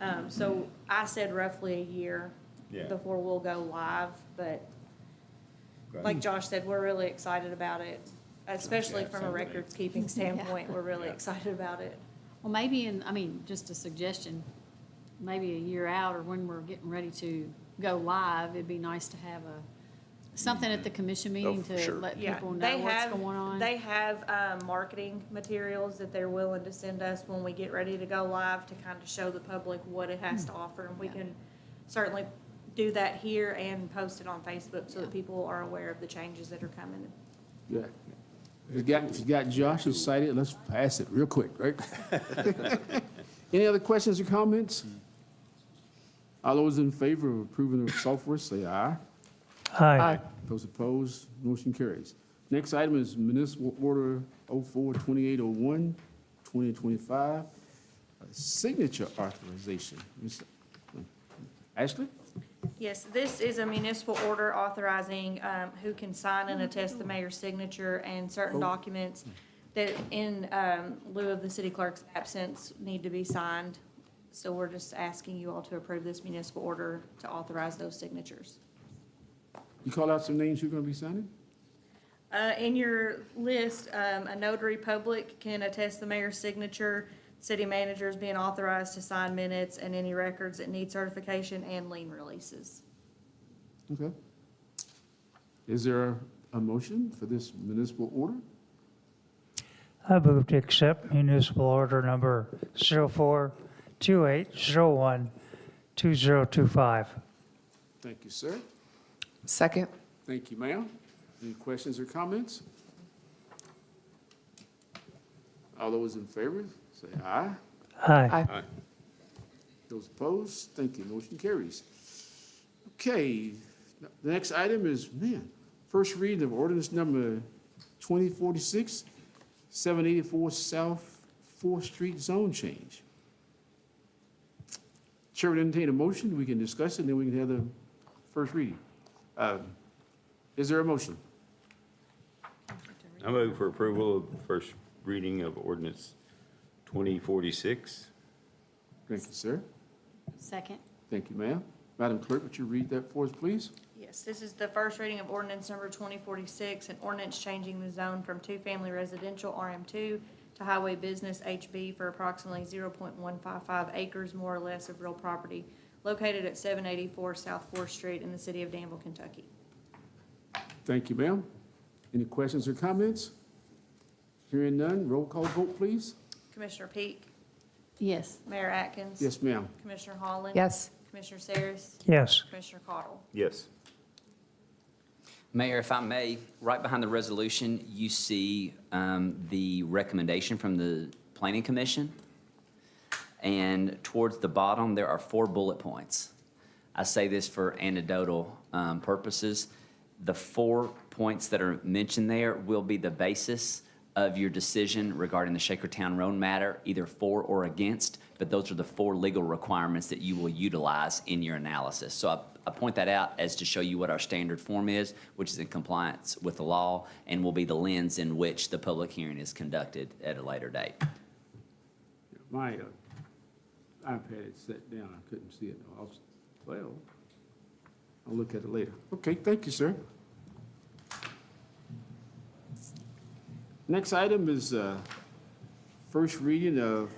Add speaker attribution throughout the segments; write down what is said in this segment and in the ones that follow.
Speaker 1: Um, so I said roughly a year
Speaker 2: Yeah.
Speaker 1: before we'll go live, but
Speaker 2: Okay.
Speaker 1: like Josh said, we're really excited about it, especially
Speaker 2: Yeah,
Speaker 1: from a
Speaker 2: sounds like-
Speaker 1: records keeping standpoint, we're really
Speaker 2: Yeah.
Speaker 1: excited about it.
Speaker 3: Well, maybe in, I mean, just a suggestion, maybe a year out or when we're getting ready to go live, it'd be nice to have a, something at the commission meeting
Speaker 4: Oh, for
Speaker 3: to
Speaker 4: sure.
Speaker 3: let
Speaker 1: Yeah,
Speaker 3: people know
Speaker 1: they
Speaker 3: what's
Speaker 1: have,
Speaker 3: going on.
Speaker 1: they have, um, marketing materials that they're willing to send us when we get ready to go live to kind of show the public what it has to offer. And we
Speaker 3: Hmm. Yeah.
Speaker 1: can certainly do that here and post it on Facebook so that
Speaker 3: Yeah.
Speaker 1: people are aware of the changes that are coming.
Speaker 5: Yeah. If you got, if you got Josh excited, let's pass it real quick, right? Any other questions or comments? All those in favor of approving the software, say aye.
Speaker 6: Aye.
Speaker 5: Those opposed, motion carries. Next item is municipal order 042801, 2025, signature authorization. Ms. Ashley?
Speaker 1: Yes, this is a municipal order authorizing um, who can sign and attest the mayor's signature and certain documents that in um, lieu of the city clerk's absence need to be signed. So we're just asking you all to approve this municipal order to authorize those signatures.
Speaker 5: You call out some names you're going to be signing?
Speaker 1: Uh, In your list, um, a notary public can attest the mayor's signature, city managers being authorized to sign minutes and any records that need certification and lien releases.
Speaker 5: Okay. Is there a motion for this municipal order?
Speaker 6: I move to accept municipal order number 0428012025.
Speaker 5: Thank you, sir.
Speaker 4: Second?
Speaker 5: Thank you, ma'am. Any questions or comments? All those in favor, say aye.
Speaker 6: Aye.
Speaker 5: Those opposed, thank you, motion carries. Okay, the next item is, man, first reading of ordinance number 2046, 784 South Fourth Street Zone Change. Chair would entertain a motion, we can discuss it, then we can have the first reading. Uh, Is there a motion?
Speaker 2: I move for approval of the first reading of ordinance 2046.
Speaker 5: Thank you, sir.
Speaker 3: Second,
Speaker 5: Thank you, ma'am. Madam Clerk, would you read that for us, please?
Speaker 1: Yes, this is the first reading of ordinance number twenty forty-six, an ordinance changing the zone from two-family residential RM two to highway business HB for approximately zero point one five five acres more or less of real property located at seven eighty-four South Fourth Street in the city of Danville, Kentucky.
Speaker 5: Thank you, ma'am. Any questions or comments? Hearing none, roll call vote, please.
Speaker 1: Commissioner Peak,
Speaker 3: yes,
Speaker 1: Mayor Atkins.
Speaker 5: Yes, ma'am.
Speaker 1: Commissioner Holland.
Speaker 4: Yes.
Speaker 1: Commissioner Saris.
Speaker 6: Yes.
Speaker 1: Commissioner Cottle.
Speaker 2: Yes.
Speaker 7: Mayor, if I may, right behind the resolution, you see um, the recommendation from the Planning Commission. And towards the bottom, there are four bullet points. I say this for anecdotal um, purposes. The four points that are mentioned there will be the basis of your decision regarding the Shakertown Road matter, either for or against, but those are the four legal requirements that you will utilize in your analysis. So I, I point that out as to show you what our standard form is, which is in compliance with the law, and will be the lens in which the public hearing is conducted at a later date.
Speaker 5: My uh, iPad had set down, I couldn't see it. I was- Well, I'll look at it later. Okay, thank you, sir. Next item is uh, first reading of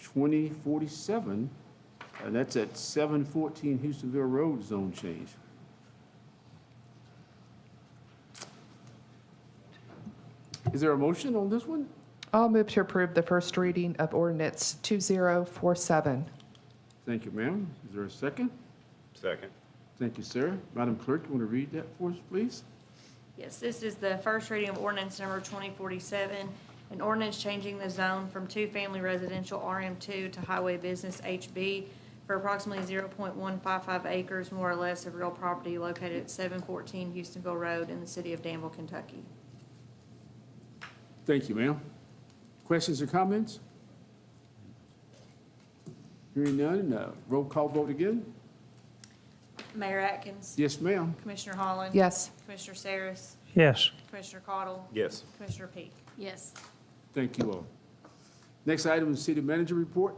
Speaker 5: 2047, and that's at 714 Houstonville Road Zone Change. Is there a motion on this one?
Speaker 4: I'll move to approve the first reading of ordinance 2047.
Speaker 5: Thank you, ma'am. Is there a second?
Speaker 2: Second.
Speaker 5: Thank you, sir. Madam Clerk, you want to read that for us, please?
Speaker 1: Yes, this is the first reading of ordinance number twenty forty-seven, an ordinance changing the zone from two-family residential RM two to highway business HB for approximately zero point one five five acres more or less of real property located at seven fourteen Houstonville Road in the city of Danville, Kentucky.
Speaker 5: Thank you, ma'am. Questions or comments? Hearing none, uh, roll call vote again?
Speaker 1: Mayor Atkins?
Speaker 5: Yes, ma'am.
Speaker 1: Commissioner Holland?
Speaker 4: Yes.
Speaker 1: Commissioner Saris?
Speaker 6: Yes.
Speaker 1: Commissioner Cottle?
Speaker 2: Yes.
Speaker 1: Commissioner Peak?
Speaker 3: yes.
Speaker 5: Thank you all. Next item is city manager report.